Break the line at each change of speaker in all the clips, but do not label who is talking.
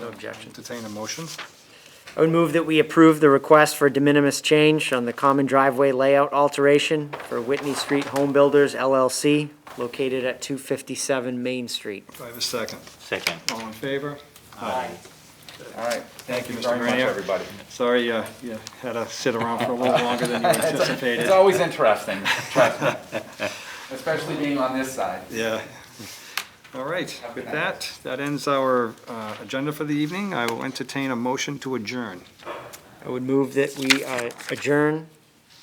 No objection.
Entertain a motion.
I would move that we approve the request for de minimis change on the common driveway layout alteration for Whitney Street Home Builders LLC, located at 257 Main Street.
Do I have a second?
Second.
All in favor?
All right,
Thank
thank
you,
you
Mr.
very much,
Grenier.
everybody.
Sorry, uh, you had to sit around for a little longer than you anticipated.
It's always interesting, trust me. especially being on this side.
Yeah. All right, with that, that ends our uh, agenda for the evening. I will entertain a motion to adjourn.
I would move that we uh, adjourn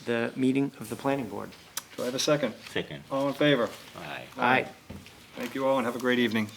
the meeting of the planning board.
Do I have a second?
Second.
All in favor?
Aye.
Aye.
Thank you all and have a great evening.